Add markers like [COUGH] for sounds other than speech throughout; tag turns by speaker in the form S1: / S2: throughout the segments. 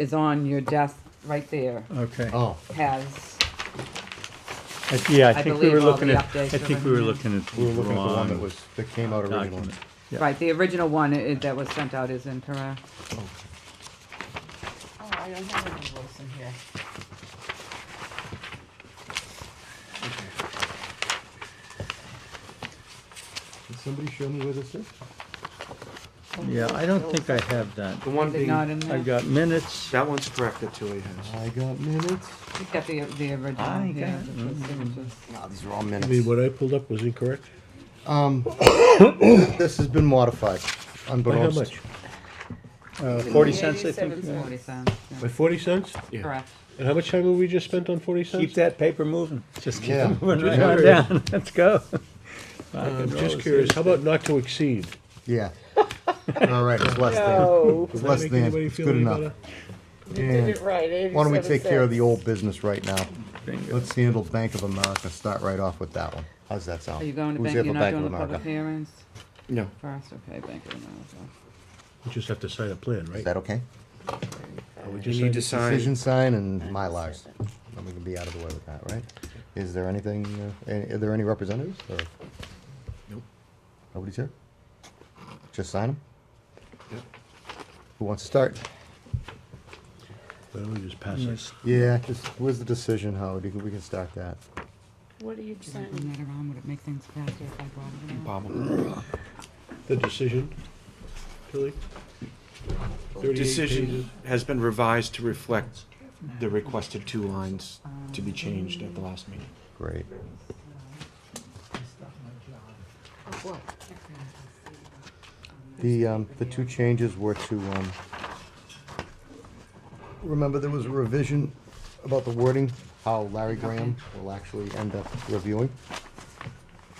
S1: is on your desk right there
S2: Okay.
S3: Oh,
S1: has,
S2: Uh, I- Yeah, I
S1: I
S2: think we were
S1: believe all
S2: looking
S1: the
S2: at, I
S1: updates are
S2: think
S1: in
S2: we were
S1: there.
S2: looking at
S3: we
S2: the
S3: were looking at the one that
S2: wrong
S3: was, that came out originally.
S2: document. Yeah.
S1: right, the original one i- that was sent out is incorrect.
S4: Oh, I don't have an invoice in here.
S3: Can somebody show me where this is?
S2: Yeah, I don't think I have that.
S5: The one
S1: Is it
S5: being,
S1: not in
S2: I
S1: there?
S2: got minutes. uh,
S5: that one's correct that Tilly has.
S3: I got minutes.
S1: You got the, the original
S2: I
S1: here.
S2: got-
S1: with the signatures.
S3: No, these are all
S6: I mean,
S3: minutes.
S6: what I pulled up was incorrect.
S3: Um, [COUGHS] this has been modified,
S6: By how
S3: unbeknownst.
S6: much?
S2: Uh, Forty cents, I think.
S4: 87
S2: yeah.
S1: Forty cents, yeah.
S6: By forty cents?
S5: Yeah.
S1: correct.
S6: And how much time have we just spent on forty cents?
S2: Keep that paper moving. Just keep
S3: Yeah.
S2: it moving right
S6: Just
S2: on
S6: curious.
S2: down. [LAUGHS] Let's go.
S6: Uh, I'm just curious, how about not to exceed?
S3: Yeah. All right, it's less than.
S4: Oh,
S3: It's
S6: Does that
S3: less
S6: make
S3: than.
S6: anybody
S3: It's
S6: feel
S3: good
S6: any
S3: enough.
S6: better?
S4: you did it
S3: And
S4: right.
S3: Why don't we take care of the
S4: 87
S3: old business right now?
S2: Bingo.
S3: Let's handle Bank of America, start right off with that one. How's that sound?
S1: Are you going to
S3: Who's
S1: bank,
S3: here
S1: you're
S3: for
S1: not
S3: Bank of
S1: doing the public
S3: America?
S1: hearings
S5: No.
S1: first, okay, Bank of America.
S6: We just have to sign a plan, right?
S3: Is that okay?
S6: Or we
S5: You
S6: just sign
S5: need to
S6: it?
S5: sign,
S3: Decision sign and Mylars. And we can be out of the way with that, right? Is there anything, uh, a- are there any representatives or?
S5: Nope.
S3: Nobody's here? Just sign them?
S5: Yep.
S3: Who wants to start?
S6: Why don't we just pass it?
S3: Yeah, just, where's the decision, Howard? You can- We can start that.
S4: What are you
S1: Should I bring
S4: saying?
S1: that around? Would it make things faster if I brought it around?
S5: Bob.
S6: The decision, Tilly? 38 pages.
S5: Decision has been revised to reflect the requested two lines to be changed at the last meeting.
S3: Great. The, um, the two changes were to, um, remember there was a revision about the wording, how Larry Graham will actually end up reviewing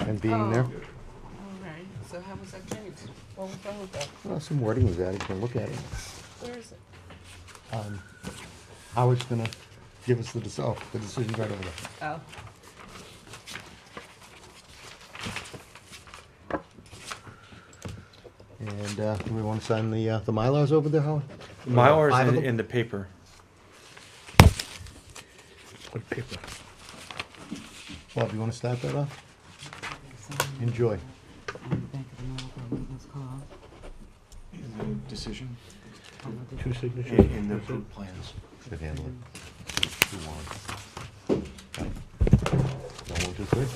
S3: and being there.
S4: All right, so how was that changed? What was wrong with that?
S3: Well, some wording was added, you can look at it.
S4: Where is it?
S3: Um, Howard's gonna give us the, deci- oh, the decision right over there.
S4: Oh.
S3: And, uh, do we wanna sign the, uh, the Mylars over there, Howard?
S5: Mylars
S3: Five of
S5: in,
S3: them?
S5: in the paper.
S6: What paper?
S3: Bob, you wanna start that off? Enjoy.
S1: On the Bank of America, what it was called.
S5: Decision
S1: on the-
S6: Two
S5: in,
S6: signatures?
S5: in the
S6: That's it?
S5: approved plans.
S3: Should handle it. Two, one. Now, one, two, three.
S7: uh,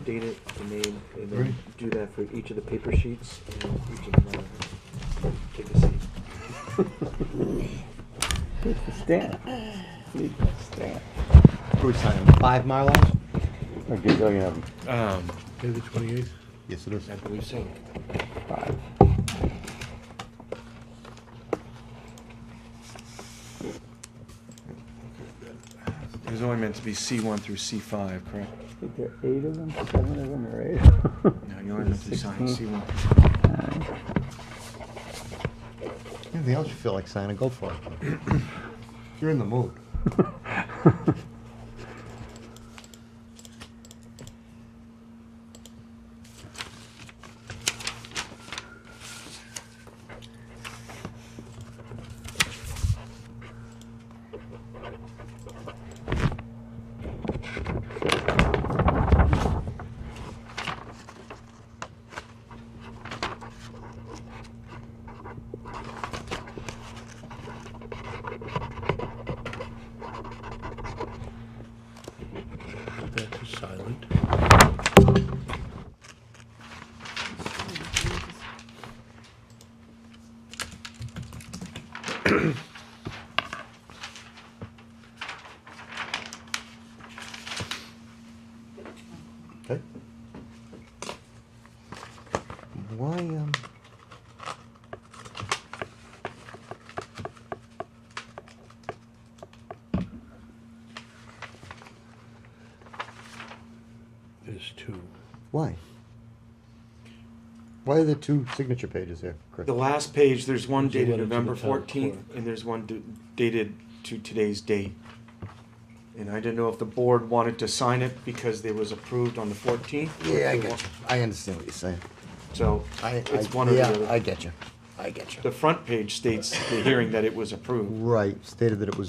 S7: date it, the name, and
S3: Right.
S7: then do that for each of the paper sheets and each of the, uh, take a seat.
S3: Who we signing? Five Mylars? Or do you have them?
S5: Um,
S6: Okay, the twenty-eighth?
S3: Yes, it is.
S5: I believe so. It was only meant to be C one through C five, correct?
S2: There are eight of them, seven of them, or eight of them.
S5: No, you only meant to sign C one.
S3: Anything else you feel like signing, go for it. [CLEARS THROAT] You're in the mood.
S6: That's a silent.
S3: Okay. Why, um...
S6: There's two.
S3: Why? Why are there two signature pages here, Chris?
S5: The last page, there's one
S6: There's a
S5: dated
S6: letter to the
S5: November
S6: town
S5: fourteenth,
S6: clerk.
S5: and there's one d- dated to today's date. And I didn't know if the board wanted to sign it because it was approved on the fourteenth.
S3: Yeah, I get you. I understand what you're saying.
S5: So,
S3: I,
S5: it's
S3: I-
S5: one or the
S3: yeah,
S5: other.
S3: I get you.
S8: I get you.
S5: The front page states the hearing that it was approved.
S3: Right, stated that it was